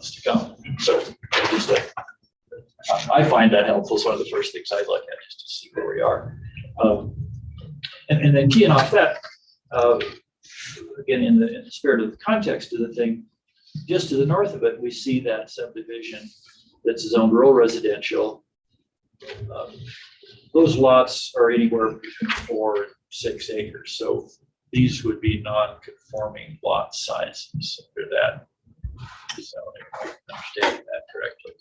months to come. So at least that- I I find that helpful. It's one of the first things I look at, just to see where we are. Um, And, and then keying off that, uh, again, in the, in the spirit of the context of the thing, just to the north of it, we see that subdivision that's zoned rural residential. Um, Those lots are anywhere between four and six acres, so these would be non-conforming lot sizes under that. zoning. if I'm Understanding that correctly.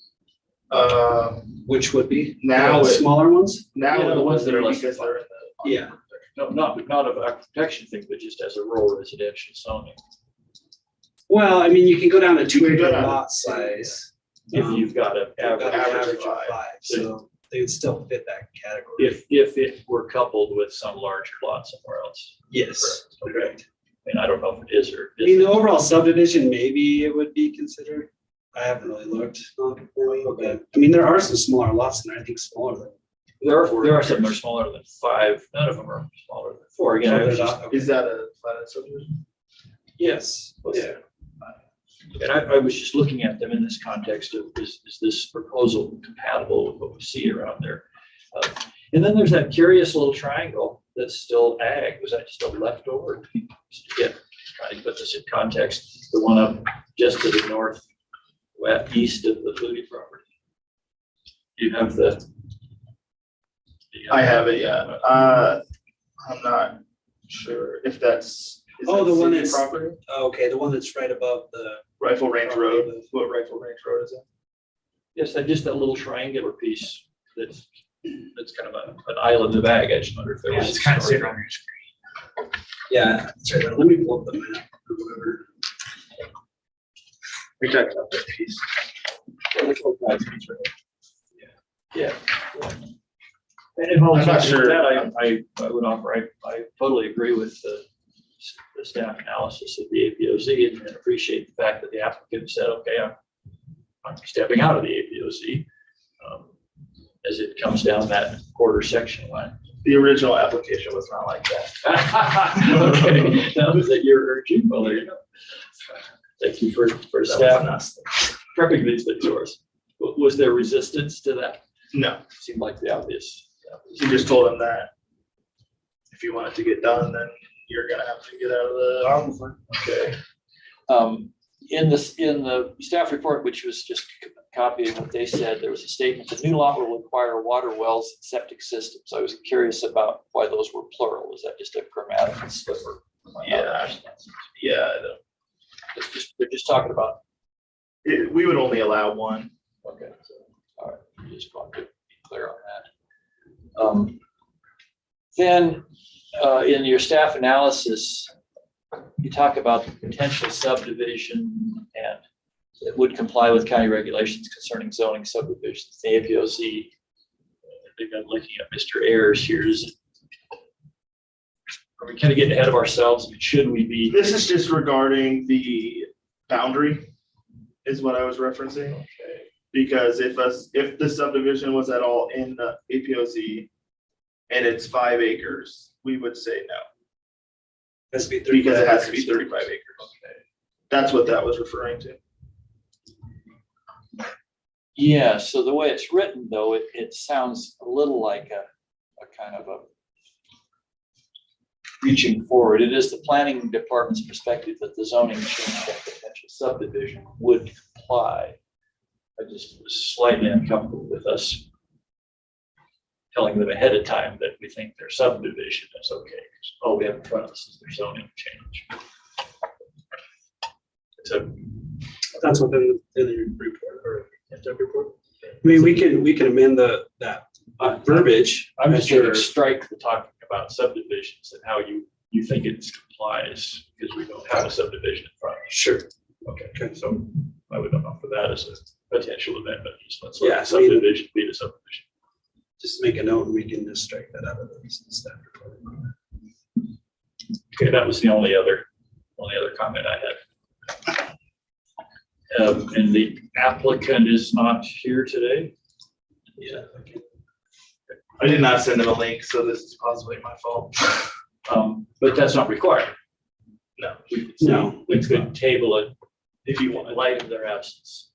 Uh, Which would be? Now The it- Smaller ones? now. Yeah, the ones that are less Because than they're in the. Yeah. uh, No, not, not of a protection thing, but just as a rural residential zoning. Well, I mean, you can go down to two can go acre down to lot size. If Um, you've got an you've got an average, average Average of five. five, so they would still fit that category. if, if it were coupled with some larger lot somewhere else. Yes, correct. And I don't know if it is or I mean, isn't. the overall subdivision, maybe it would be considered. I haven't really looked. um, really, but, I mean, there are some smaller lots and I think smaller than. There are, there are some that are smaller than five. None of them are smaller than four. Again, I was just Is that a platted subdivision? Yes, yeah. And I, I was just looking at them in this context of, is, is this proposal compatible with what we see around there? Uh, And then there's that curious little triangle that's still ag, was that just a leftover? Yeah, trying to put this in context, the one up just to the north, west, east of the Flutie property. You have the. the, uh, I have it, yeah. Uh, I'm not sure if that's. is Oh, that the one city that's- Property, Okay, the one that's right above the, Rifle Range Road, what Rifle Range Road is it? Yes, that, just that little triangular piece that's, that's kind of a- an island of ag, I just wonder if there was. It's kind of a story. sitting on your screen. yeah, sorry, let me pull up the map or whatever. We talked about that piece. Yeah. And in all I'm not fairness, sure. that, I, I, I would offer, I, I totally agree with the, s- the staff analysis of the APOZ and- and appreciate the fact that the applicant said, okay, I'm, I'm stepping out of the APOZ um, as it comes down that quarter section line. The original application was not like that. Okay, that was at your urging, well, there you go. Thank you for, for That was staff not- prepping these things for us. Wa- Was there resistance to that? No, Seemed like the obvious. you just told him that if you want it to get done, then you're gonna have to get out of the. Okay. Um, in this, in the staff report, which was just copying what they said, there was a statement, the new lot will require water wells and septic systems. I was curious about why those were plural. Was that just a grammatical slipper? Yeah. Yeah, I don't- It's just, they're just talking about, it- we would only allow one. okay, so, all right, I just wanted to be clear on that. Um, Then, uh, in your staff analysis, you talk about the potential subdivision and that would comply with county regulations concerning zoning subdivisions, the APOZ. I think I'm looking at Mr. Ayers here. Is Are we kind of getting ahead of ourselves? Should we be? This is just regarding the boundary is what I was referencing. Because if us, if the subdivision was at all in the APOZ and it's five acres, we would say no. Has to be thirty. Because it has to be thirty-five acres. That's what that was referring to. Yeah, so the way it's written though, it, it sounds a little like a, a kind of a reaching forward. It is the planning department's perspective that the zoning change of potential subdivision would comply. I just was slightly uncomfortable with us telling them ahead of time that we think their subdivision is okay. 'cause All we have in front of us is their zoning change. It's a, That's what the, the report or. I mean, we can, we can amend the, that uh, verbiage. I'm just sure. gonna strike the talking about subdivisions and how you, you think it complies, because we don't have a subdivision in front. Sure, Okay, so I would offer that as a potential amendment, just let's Yeah, let I the subdivision be the subdivision. just make a note and we can just strike that out of the staff report. Okay, that was the only other, only other comment I had. Um, and the applicant is not here today. Yeah. I did not send him a link, so this is possibly my fault. Um, but that's not required. No. We could- No. We could table it if you want. in light of their absence.